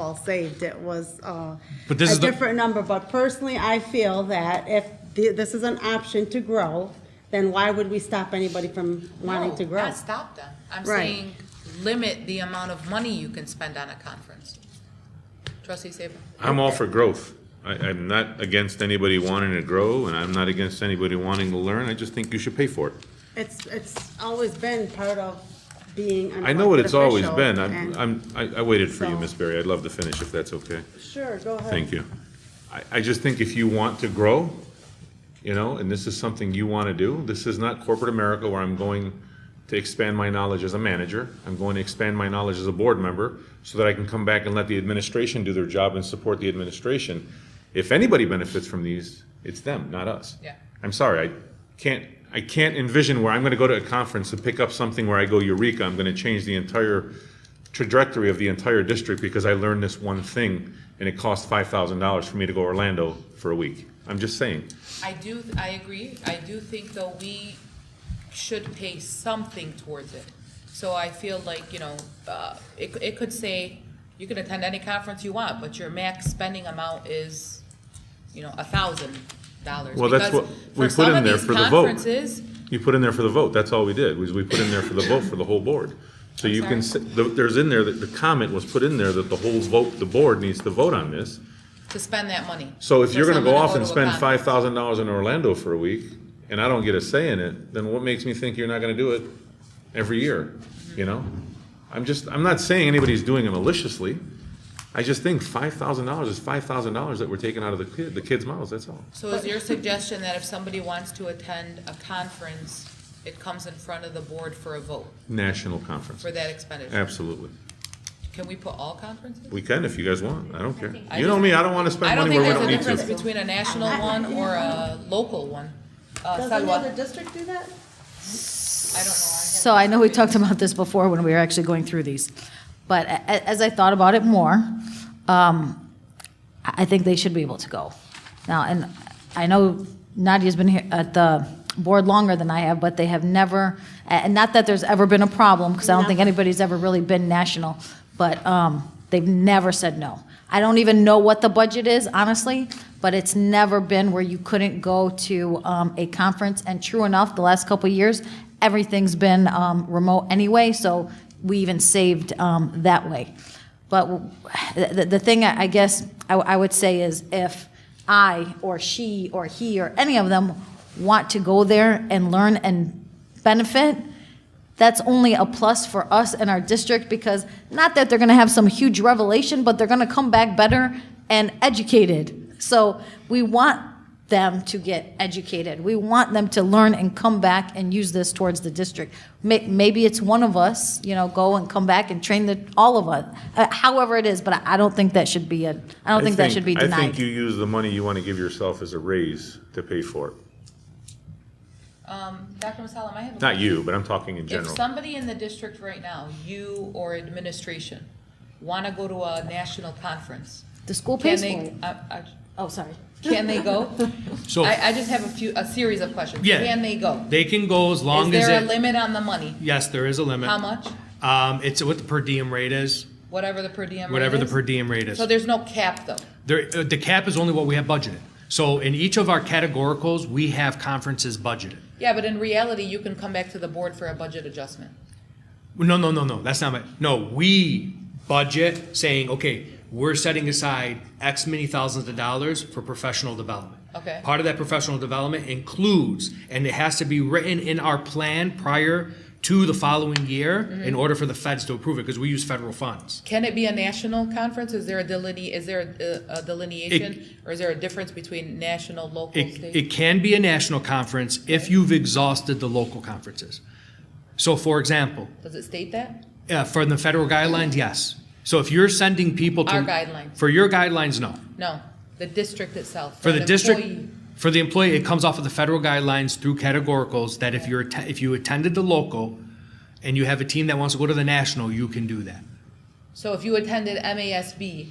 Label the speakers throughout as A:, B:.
A: all saved. It was uh, a
B: But this is the-
A: different number, but personally, I feel that if th- this is an option to grow, then why would we stop anybody from wanting
C: No,
A: to grow?
C: Not stop them. I'm
A: Right.
C: saying limit the amount of money you can spend on a conference. Trustee Saber?
D: I'm all for growth. I, I'm not against anybody wanting to grow, and I'm not against anybody wanting to learn. I just think you should pay for it.
A: It's, it's always been part of being an
D: I know what it's always
A: official
D: been. I'm,
A: and-
D: I'm, I I waited for you,
A: So-
D: Miss Berry. I'd love to finish if that's okay.
A: Sure, go ahead.
D: Thank you. I, I just think if you want to grow, you know, and this is something you want to do, this is not corporate America where I'm going to expand my knowledge as a manager. I'm going to expand my knowledge as a board member so that I can come back and let the administration do their job and support the administration. If anybody benefits from these, it's them, not us.
C: Yeah.
D: I'm sorry, I can't, I can't envision where I'm going to go to a conference and pick up something where I go eureka, I'm going to change the entire trajectory of the entire district because I learned this one thing and it cost five thousand dollars for me to go Orlando for a week. I'm just saying,
C: I do, I agree. I do think though we should pay something towards it. So I feel like, you know, uh, it, it could say, you can attend any conference you want, but your max spending amount is, you know, a thousand dollars.
D: Well, that's
C: Because
D: what we
C: for
D: put
C: some
D: in
C: of
D: there
C: these
D: for the vote.
C: Conferences,
D: you put in there for the vote, that's all we did, was we put in there for the vote for the whole board. So you can, s- the- there's in there, that the comment was put in there that the whole vote, the board needs to vote on this.
C: to spend that money.
D: So if
C: For
D: you're gonna
C: someone
D: go
C: to
D: off and
C: to a
D: spend
C: conference.
D: five thousand dollars in Orlando for a week, and I don't get a say in it, then what makes me think you're not gonna do it every year, you know? I'm just, I'm not saying anybody's doing it maliciously, I just think five thousand dollars is five thousand dollars that we're taking out of the kid, the kids' mouths, that's all.
C: So is your suggestion that if somebody wants to attend a conference, it comes in front of the board for a vote
D: National conference,
C: for that expenditure?
D: absolutely.
C: Can we put all conferences?
D: We can if you guys want, I don't care.
C: I
D: You know
C: just-
D: me, I don't wanna
C: I
D: spend
C: don't
D: money
C: think there's
D: where we don't
C: a
D: need
C: difference
D: to.
C: between a national
A: I- I-
C: one or a local one. Uh,
A: Does
C: Salwa,
A: another district do that?
C: I don't know. I
E: So I know we talked about this before when we were actually going through these, but a- a- as I thought about it more, um, I I think they should be able to go. Now, and I know Nadia's been here at the board longer than I have, but they have never, and not that there's ever been a problem, because I don't think anybody's ever really been national, but um, they've never said no. I don't even know what the budget is, honestly, but it's never been where you couldn't go to um, a conference. And true enough, the last couple of years, everything's been um, remote anyway, so we even saved um, that way. But w- the, the thing I I guess I, I would say is if I or she or he or any of them want to go there and learn and benefit, that's only a plus for us and our district because not that they're going to have some huge revelation, but they're going to come back better and educated. So we want them to get educated. We want them to learn and come back and use this towards the district. May- Maybe it's one of us, you know, go and come back and train the, all of us, uh, however it is, but I- I don't think that should be a, I don't think that should be
D: I think you
E: denied.
D: use the money you wanna give yourself as a raise to pay for it.
C: Um, Dr. Masalam, I have a
D: Not you, but I'm talking in general.
C: If somebody in the district right now, you or administration, want to go to a national conference,
E: The school
C: can
E: pays for
C: they,
E: it.
C: uh, uh,
E: Oh, sorry.
C: can they go?
B: So-
C: I, I just have a few, a series of questions.
B: Yeah.
C: Can they go?
B: They can go as long
C: Is
B: as
C: there a
B: it,
C: limit on the money?
B: yes, there is a limit.
C: How much?
B: Um, it's what the per diem rate is,
C: Whatever the per diem rate
B: whatever the
C: is?
B: per diem rate is.
C: So there's no cap, though?
B: There, uh, the cap is only what we have budgeted. So in each of our categoricals, we have conferences budgeted.
C: Yeah, but in reality, you can come back to the board for a budget adjustment.
B: No, no, no, no, that's not my, no, we budget saying, okay, we're setting aside X many thousands of dollars for professional development.
C: Okay.
B: Part of that professional development includes, and it has to be written in our plan prior to the following year
C: Mm-hmm.
B: in order for the feds to approve it, because we use federal funds.
C: Can it be a national conference? Is there a deline, is there a- a delineation? Or is there a difference between national, local,
B: It,
C: state?
B: it can be a national conference if you've exhausted the local conferences. So for example,
C: Does it state that?
B: uh, for the federal guidelines, yes. So if you're sending people to.
C: Our guidelines.
B: For your guidelines, no.
C: No, the district itself.
B: For the
C: an employee.
B: district, for the employee, it comes off of the federal guidelines through categoricals that if you're, atten- if you attended the local and you have a team that wants to go to the national, you can do that.
C: So if you attended MASB,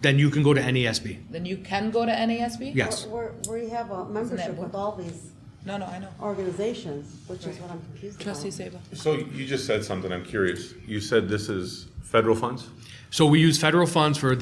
B: Then you can go to NESB.
C: then you can go to NASB?
B: Yes.
A: We're, we're- we have a membership with all these
C: No, no, I know.
A: organizations, which is what I'm confused about.
C: Trustee Sabo.
D: So you just said something, I'm curious. You said this is federal funds?
B: So we use federal funds for